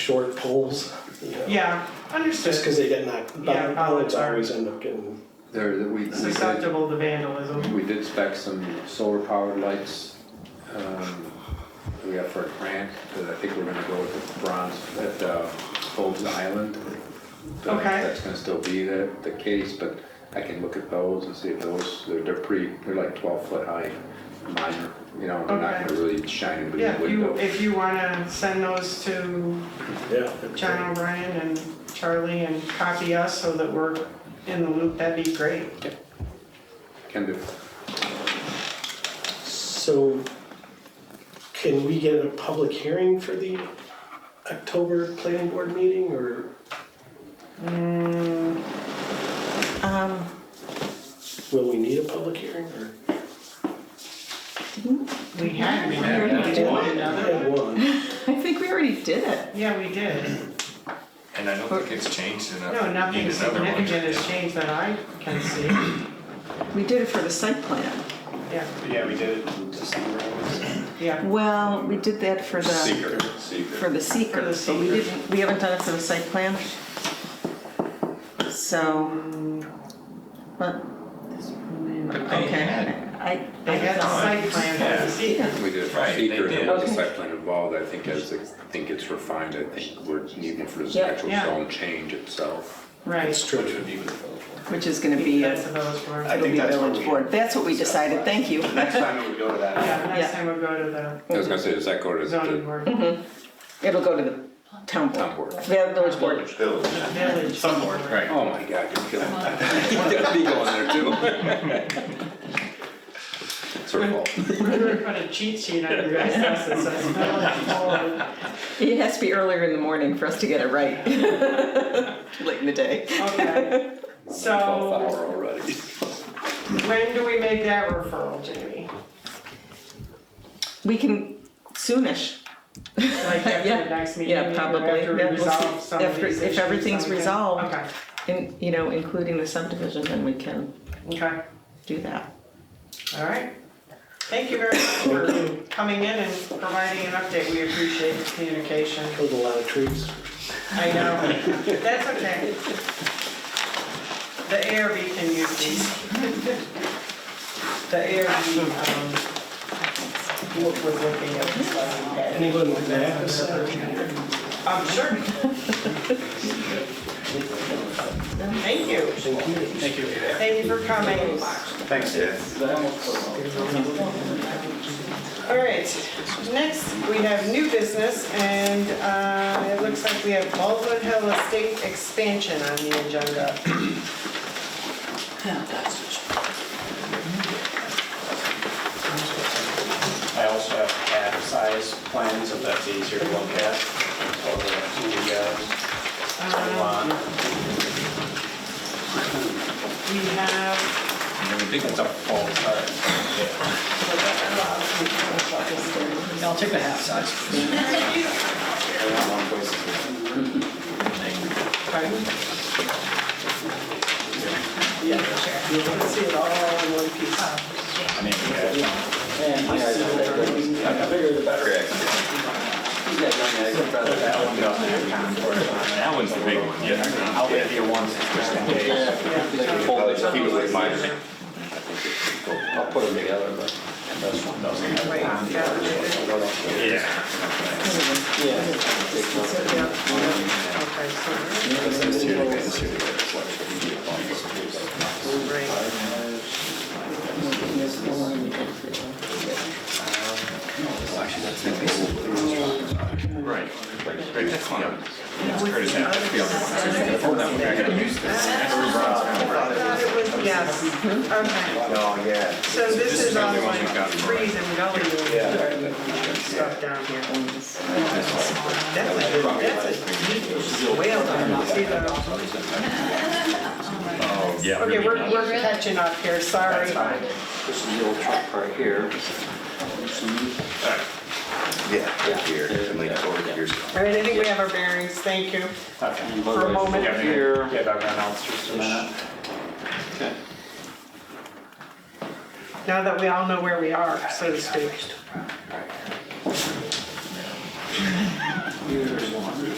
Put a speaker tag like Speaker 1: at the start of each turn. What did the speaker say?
Speaker 1: short poles, you know.
Speaker 2: Yeah,
Speaker 1: Just
Speaker 2: understood.
Speaker 1: because they get knocked,
Speaker 2: Yeah,
Speaker 1: bollards
Speaker 2: bollards are-
Speaker 1: always end up getting,
Speaker 3: There, that we, we did,
Speaker 2: Susceptible to vandalism.
Speaker 3: we did spec some solar powered lights, um, we got for a grant, that I think we're gonna go with the bronze at, uh, Forbes Island. Don't know if
Speaker 2: Okay.
Speaker 3: That's gonna still be the, the case, but I can look at those and see if those, they're, they're pretty, they're like twelve foot high, minor, you know, they're not
Speaker 2: Okay.
Speaker 3: gonna really shine into
Speaker 2: Yeah,
Speaker 3: the
Speaker 2: if you,
Speaker 3: window.
Speaker 2: if you wanna send those to
Speaker 1: yeah.
Speaker 2: John O'Brien and Charlie and copy us so that we're in the loop, that'd be great.
Speaker 3: Kind of
Speaker 1: So can we get a public hearing for the October planning board meeting or?
Speaker 2: Mm,
Speaker 4: Um,
Speaker 1: Will we need a public hearing or?
Speaker 2: we had, we
Speaker 3: had
Speaker 2: had, we did
Speaker 1: We
Speaker 2: another
Speaker 1: had
Speaker 2: one.
Speaker 1: one.
Speaker 4: I think we already did it.
Speaker 2: Yeah, we did.
Speaker 5: And I don't think it's changed enough.
Speaker 2: No, nothing
Speaker 5: Need another one.
Speaker 2: significant has changed that I can see.
Speaker 4: We did it for the site plan.
Speaker 2: Yeah,
Speaker 6: Yeah, we did it in December. I was-
Speaker 2: yeah.
Speaker 4: Well, we did that for the,
Speaker 6: Secret.
Speaker 4: for the
Speaker 2: For the
Speaker 4: seeker, but we
Speaker 2: seeker.
Speaker 4: didn't, we haven't done it for the site plan. So, but,
Speaker 5: But they had-
Speaker 4: okay, I,
Speaker 2: They
Speaker 4: I
Speaker 2: had a
Speaker 4: don't
Speaker 2: site
Speaker 4: know.
Speaker 2: plan for the secret.
Speaker 3: We did it for
Speaker 5: Right, they
Speaker 3: secret, and
Speaker 5: did.
Speaker 3: it was a site plan involved, I think as, it- I think it's refined, I think we're needing for this
Speaker 4: Yeah.
Speaker 3: actual
Speaker 2: Yeah.
Speaker 3: zone change itself.
Speaker 2: Right,
Speaker 1: It's true.
Speaker 6: Which would be with the village board.
Speaker 4: Which is gonna be,
Speaker 2: that's
Speaker 4: a-
Speaker 2: the village board.
Speaker 6: I
Speaker 4: it'll
Speaker 6: think
Speaker 4: be
Speaker 6: that's what
Speaker 4: village
Speaker 6: we-
Speaker 4: board. That's what we decided, thank you.
Speaker 6: Next time it would go to that.
Speaker 2: Yeah, next
Speaker 4: Yeah.
Speaker 2: time we'll go to the
Speaker 3: I was gonna say, does that go to
Speaker 2: zoning
Speaker 3: the
Speaker 2: board,
Speaker 4: It'll go to the town board.
Speaker 3: town board?
Speaker 4: Yeah, village board.
Speaker 6: Village.
Speaker 2: village board.
Speaker 5: Right.
Speaker 3: Oh my god, you're killing me. You got me going there too. It's her fault.
Speaker 2: We're gonna put a cheat sheet on your guys' house that says village board.
Speaker 4: It has to be earlier in the morning for us to get it right. Too Late in the day.
Speaker 2: Okay,
Speaker 3: Twelfth
Speaker 2: so
Speaker 3: hour already.
Speaker 2: when do we make that referral, Jamie?
Speaker 4: We can soonish.
Speaker 2: Like after
Speaker 4: Yeah.
Speaker 2: the next meeting?
Speaker 4: Yeah,
Speaker 2: or
Speaker 4: probably.
Speaker 2: After we
Speaker 4: Yeah, we'll see.
Speaker 2: resolve some of
Speaker 4: After-
Speaker 2: these
Speaker 4: if
Speaker 2: issues
Speaker 4: everything's
Speaker 2: that we can-
Speaker 4: resolved.
Speaker 2: Okay,
Speaker 4: In, you know, including the subdivision, then we can
Speaker 2: okay,
Speaker 4: do that.
Speaker 2: all right. Thank you very much for coming in and providing an update. We appreciate the communication.
Speaker 1: Killed a lot of trees.
Speaker 2: I know, that's okay. The ARB can use these. The ARB, um, was looking at this last week.
Speaker 1: Anyone with that?
Speaker 2: Um, sure. Thank you.
Speaker 6: Thank you.
Speaker 2: Thank you for coming.
Speaker 6: Thanks, Dave.
Speaker 2: All right, next we have new business and uh, it looks like we have Baldwin Hill Estate expansion on the agenda.
Speaker 6: I also have pad size plans, if that's easier to look at. So the, uh, lawn.
Speaker 2: We have,
Speaker 5: I think
Speaker 6: It's a full size. I'll take the half size.
Speaker 2: pardon? Yeah, sure. You can see it all in one piece.
Speaker 6: I mean, yeah.
Speaker 5: That one's the big one, yeah.
Speaker 6: I'll give you one sixty days.
Speaker 3: I'll put them together, but.
Speaker 2: Wait, yeah.
Speaker 5: Yeah.
Speaker 2: Okay, so. Right.
Speaker 5: Right. Right, that's one. That's Curtis Ave, that's the other one.
Speaker 2: I thought it was, yes, okay.
Speaker 6: Oh, yeah.
Speaker 2: So this is all
Speaker 5: the one
Speaker 2: like
Speaker 5: that got it right.
Speaker 2: trees and gullies and stuff down here. That's a, that's a huge whale down there. See the-
Speaker 5: Oh, yeah.
Speaker 2: Okay, we're, we're catching up here, sorry.
Speaker 6: This is the old truck right here.
Speaker 3: Yeah, here, and like toward here's.
Speaker 2: All right, I think we have our bearings, thank you.
Speaker 6: For
Speaker 2: a moment
Speaker 6: here. Give everyone else just a minute.
Speaker 2: Now that we all know where we are, so to speak.
Speaker 6: Here's one.